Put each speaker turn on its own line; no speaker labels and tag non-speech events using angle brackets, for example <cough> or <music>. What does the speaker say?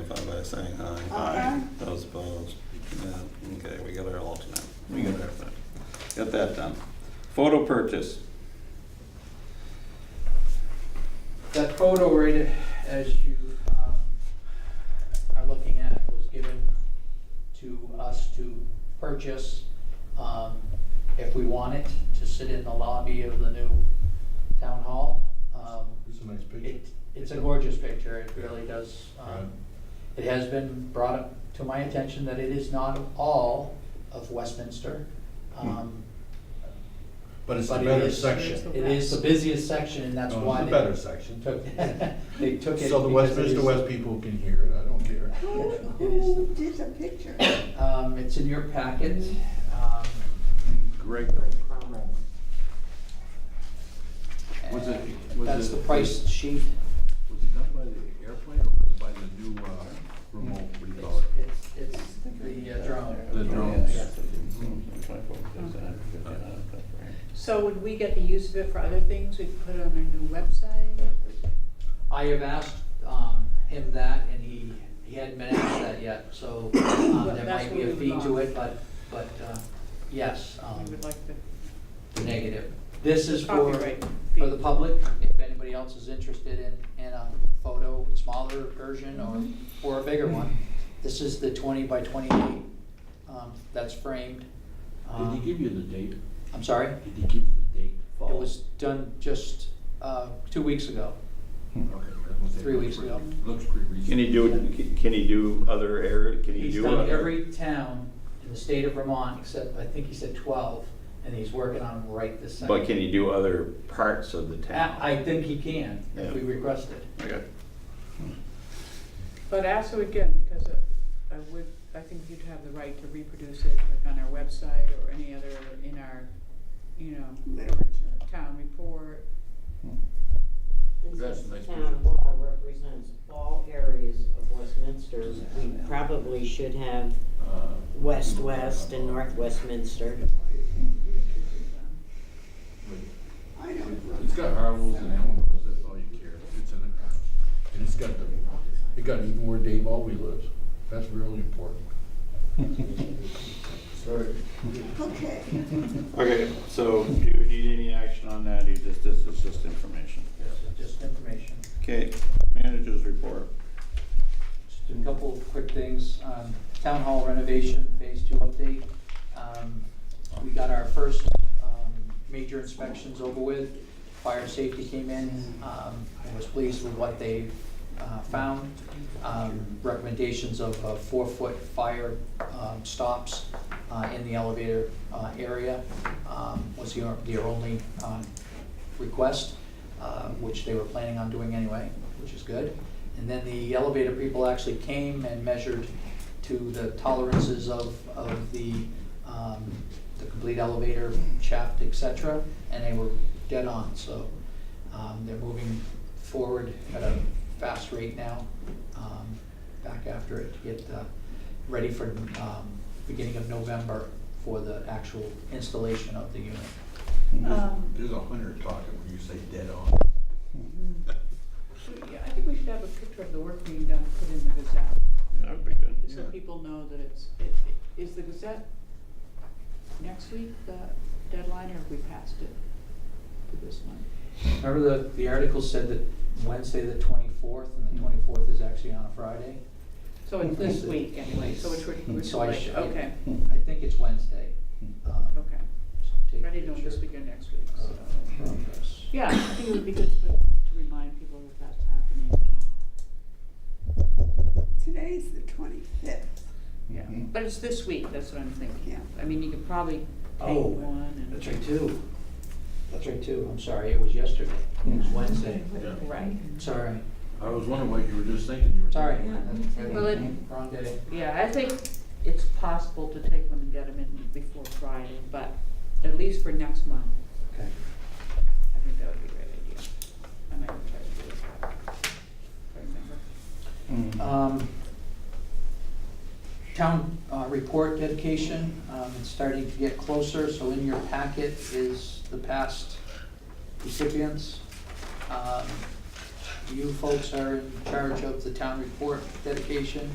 by saying aye.
Aye.
Those opposed? No. Okay, we got our alternate. We got everything. Got that done. Photo purchase.
That photo right as you um, are looking at was given to us to purchase um, if we want it, to sit in the lobby of the new town hall. Um,
It's a nice picture.
it- It's a gorgeous picture, it really does. um, It has been brought up to my attention that it is not all of Westminster.
Hmm.
Um,
But it's a
But it
better
is-
section.
It is the busiest section and that's
No,
why
It's a
they
better section.
took, they took <laughs> it.
So
because
the
it
Westminster
is-
West people can hear it, I don't care.
Who,
It is the-
who did the picture?
Um, it's in your packet. Um,
Greg, Was it- was
That's
it-
the price
was
sheet.
it done by the airplane or was it by the new, uh, remote, what do you call
It's,
it?
it's, it's the uh,
The
drone.
drones.
So would we get the use of it for other things? We could put it on our new website?
I have asked, um, him that and he, he hadn't been asked that yet, so,
<coughs>
um, there
That's
might be a
what we
fee
would
to
like.
it, but, but, uh, yes, um,
We would like the
negative. This is for,
copyright.
for the public, if anybody else is interested in, in a photo, smaller version or, or a bigger one. This is the twenty by twenty-eight, um, that's framed.
Did he
Um,
give you the date?
I'm sorry?
Did he give you the date?
It was done just, uh, two weeks ago. Three weeks ago.
Looks pretty reasonable.
Can he do, can he do other area, can he
He's
do?
done
other-
every town in the state of Vermont, except, I think he said twelve, and he's working on them right this second.
But can he do other parts of the town?
I, I think he can, if we
Yeah.
request it.
Okay.
But also again, because it- I would, I think you'd have the right to reproduce it like on our website or any other, in our, you know,
Literature.
town report.
Since
That's a nice
this
picture.
town hall represents all areas of Westminster, we probably should have
Uh,
West West and North Westminster.
I don't know.
It's got Harlow's and Elmwood's, that's all you care. It's in it. And it's got the, it got even where Dave Alvey lives. That's really important. Sorry.
Okay.
Okay, so do you need any action on that, you just, this is just information?
Just- Just information.
Okay, managers report.
Just a couple of quick things. Um, Town hall renovation, phase two update. Um, We got our first um, major inspections over with. Fire and safety came in, um, and was pleased with what they uh, found. Um, Recommendations of uh, four-foot fire um, stops uh, in the elevator uh, area um, was your their only um, request, uh, which they were planning on doing anyway, which is good. And then the elevator people actually came and measured to the tolerances of, of the, um, the complete elevator shaft, et cetera, and they were dead on, so, um, they're moving forward at a fast rate now, um, back after it, to get, uh, ready for, um, beginning of November for the actual installation of the unit.
Um,
There's a hundred talking when you say dead on.
we- I think we should have a picture of the work being done, put in the Gazette,
That would be good.
so
Yeah.
people know that it's, it- is the Gazette next week the deadline or have we passed it for this one?
Remember the, the article said that Wednesday the twenty-fourth, and the twenty-fourth is actually on a Friday?
So it's Hmm. this week anyway, so it's, re- it's
Mm-hmm. So I
like,
should-
okay, Hmm.
I think it's Wednesday. um,
okay.
so take
Ready to do
picture
this week or next week,
of
so.
progress.
Yeah, I think it would be good to, to remind people that that's happening.
Today's the twenty-fifth.
Yeah, but it's this week, that's what I'm thinking.
Yeah.
I mean, you could probably take
Oh,
one and.
That's right, too. That's right, too. I'm sorry, it was yesterday. It was Wednesday.
Right,
Sorry,
I was wondering what you were just thinking. You were
sorry.
Yeah.
That's-
Well, it-
Wrong day.
yeah, I think it's possible to take one and get them in before Friday, but at least for next month,
Okay.
I think that would be a great idea. I might try to do it, if I remember.
Um, Town uh, report dedication, um, it's starting to get closer, so in your packet is the past recipients. Um, You folks are in charge of the town report dedication.